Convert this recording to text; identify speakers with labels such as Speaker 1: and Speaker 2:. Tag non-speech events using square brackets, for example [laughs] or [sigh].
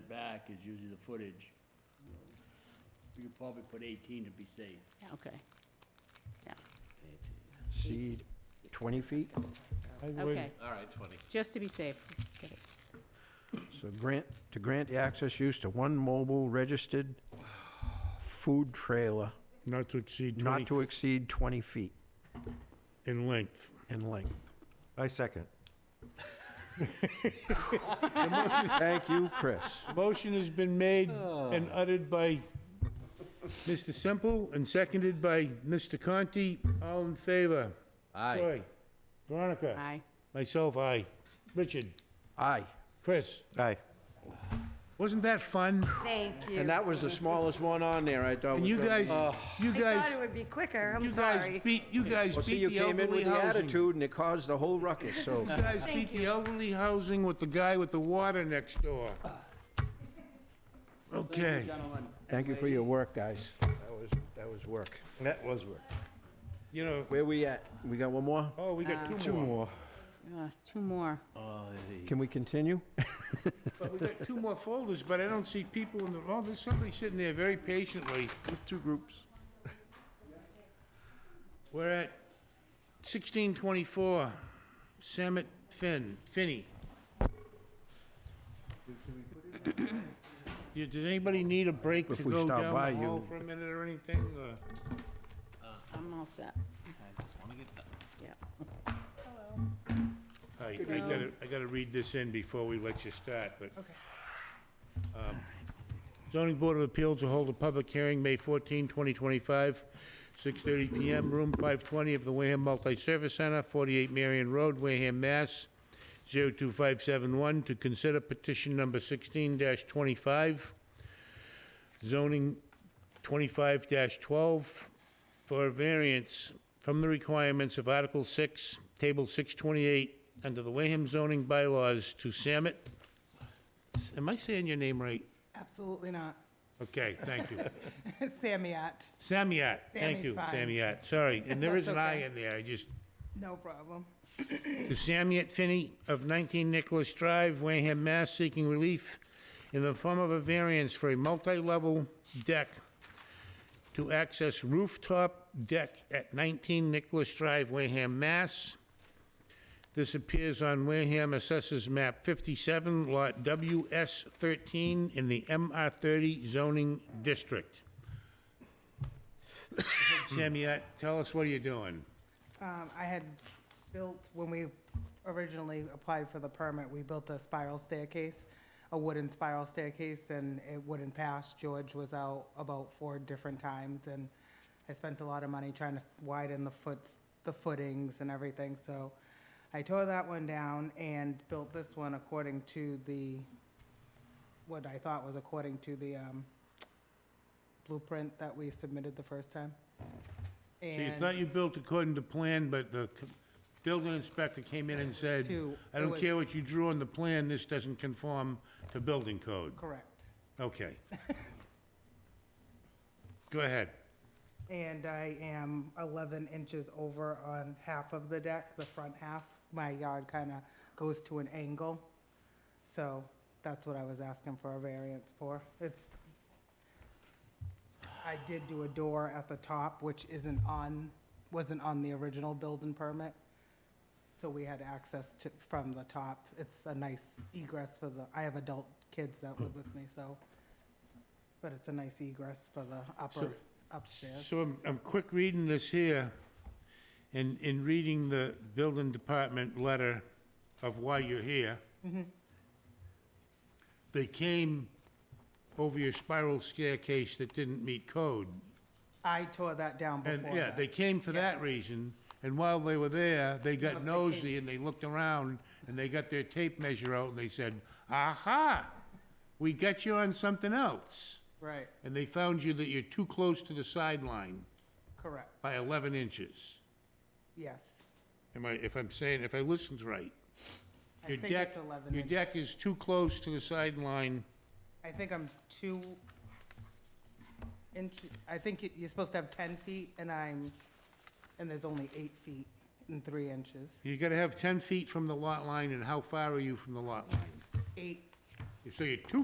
Speaker 1: back is usually the footage. You could probably put 18 to be safe.
Speaker 2: Yeah, Okay. Yeah,
Speaker 3: See, 20 feet?
Speaker 4: I
Speaker 2: okay,
Speaker 4: would,
Speaker 5: All right, 20.
Speaker 2: just to be safe. Get it.
Speaker 3: So grant, to grant the access use to one mobile registered food trailer
Speaker 4: not to exceed
Speaker 3: not
Speaker 4: 20
Speaker 3: to exceed 20 feet
Speaker 4: in length.
Speaker 3: in length.
Speaker 6: I second.
Speaker 3: Thank you, Chris.
Speaker 4: Motion has been made and
Speaker 3: Ah.
Speaker 4: uttered by Mr. Semple and seconded by Mr. Conti. All in favor?
Speaker 6: Aye.
Speaker 4: Troy? Veronica?
Speaker 2: Aye.
Speaker 4: Myself, aye. Richard?
Speaker 3: Aye.
Speaker 4: Chris?
Speaker 6: Aye.
Speaker 4: Wasn't that fun?
Speaker 7: Thank you.
Speaker 3: And that was the smallest one on there, I thought.
Speaker 4: And
Speaker 3: was
Speaker 4: you
Speaker 3: gonna be-
Speaker 4: guys, you
Speaker 7: I thought
Speaker 4: guys,
Speaker 7: it would be quicker, I'm
Speaker 4: you guys
Speaker 7: sorry.
Speaker 4: beat, you guys
Speaker 3: Well, see, you
Speaker 4: beat the
Speaker 3: came in
Speaker 4: elderly
Speaker 3: with the
Speaker 4: housing.
Speaker 3: attitude and it caused the whole ruckus, so.
Speaker 4: You guys beat the elderly housing with the guy with the water next door. Okay.
Speaker 1: Gentlemen.
Speaker 3: Ah. Thank you for your work, guys. That was, that was work.
Speaker 6: That was work.
Speaker 4: You know,
Speaker 3: Where we at? We got one more?
Speaker 4: oh, we
Speaker 7: Ah.
Speaker 4: got two more.
Speaker 2: Uh, Two more.
Speaker 3: Can we continue?
Speaker 4: But we got two more folders, but I don't see people in the, oh, there's somebody sitting there very patiently.
Speaker 6: There's two groups.
Speaker 4: We're at sixteen twenty-four, Samet Finn, Finney. Yeah, Does anybody need a break to
Speaker 3: If we
Speaker 4: go
Speaker 3: stop by,
Speaker 4: down the
Speaker 3: you-
Speaker 4: hall for a minute or anything? or-
Speaker 2: I'm all set.
Speaker 4: I, I gotta, I gotta read this in before we let you start, but. Um, Zoning Board of Appeals will hold a public hearing, May 14, 2025, 6:30 PM, room 520 of the Wareham Multi-Service Center, 48 Marion Road, Wareham, Mass. 02571, to consider petition number 16-25, zoning 25-12, for a variance from the requirements of Article 6, Table 628, under the Wareham zoning bylaws to Samet. Am I saying your name right?
Speaker 8: Absolutely not. [laughs]
Speaker 4: Okay, thank you.
Speaker 8: Samiat,
Speaker 4: Samiat, thank
Speaker 8: Sammy's
Speaker 4: you,
Speaker 8: fine.
Speaker 4: Samiat, sorry. And there is
Speaker 8: [laughs] That's
Speaker 4: an I
Speaker 8: okay.
Speaker 4: in there, I just,
Speaker 8: no problem.
Speaker 4: to Samiat Finney of 19 Nicholas Drive, Wareham, Mass, seeking relief in the form of a variance for a multi-level deck to access rooftop deck at 19 Nicholas Drive, Wareham, Mass. This appears on Wareham Assessors Map 57, Lot WS13, in the MR30 zoning district. [coughs] Samiat, tell us what are you doing?
Speaker 8: Um, I had built, when we originally applied for the permit, we built a spiral staircase, a wooden spiral staircase, and it wouldn't pass. George was out about four different times, and I spent a lot of money trying to widen the foots, the footings and everything, so I tore that one down and built this one according to the, what I thought was according to the, um, blueprint that we submitted the first time.
Speaker 4: So you
Speaker 8: And-
Speaker 4: thought you built according to plan, but the c- building inspector came in and said,
Speaker 8: To-
Speaker 4: I
Speaker 8: it
Speaker 4: don't
Speaker 8: was-
Speaker 4: care what you drew on the plan, this doesn't conform to building code.
Speaker 8: Correct.
Speaker 4: Okay.
Speaker 8: [laughs]
Speaker 4: Go ahead.
Speaker 8: And I am 11 inches over on half of the deck, the front half. My yard kind of goes to an angle. So that's what I was asking for a variance for. It's, I did do a door at the top, which isn't on, wasn't on the original building permit. So we had access to, from the top. It's a nice egress for the, I have adult kids that live with me, so. But it's a nice egress for the upper, upstairs.
Speaker 4: So I'm, I'm quick reading this here, and in reading the building department letter of why you're here.
Speaker 8: Mm-hmm.
Speaker 4: They came over your spiral staircase that didn't meet code.
Speaker 8: I tore that down before
Speaker 4: And,
Speaker 8: that.
Speaker 4: yeah, they came for that reason, and while they were there, they got nosy and they looked around, and they got their tape measure out, and they said, aha, we got you on something else.
Speaker 8: Right,
Speaker 4: And they found you that you're too close to the sideline
Speaker 8: correct,
Speaker 4: by eleven inches.
Speaker 8: yes.
Speaker 4: Am I, if I'm saying, if I listened right?
Speaker 8: I
Speaker 4: Your
Speaker 8: think
Speaker 4: deck,
Speaker 8: it's 11
Speaker 4: your
Speaker 8: inches.
Speaker 4: deck is too close to the sideline,
Speaker 8: I think I'm two inch, I think it- you're supposed to have 10 feet, and I'm, and there's only eight feet and three inches.
Speaker 4: you gotta have ten feet from the lot line, and how far are you from the lot line?
Speaker 8: Eight
Speaker 4: So you're two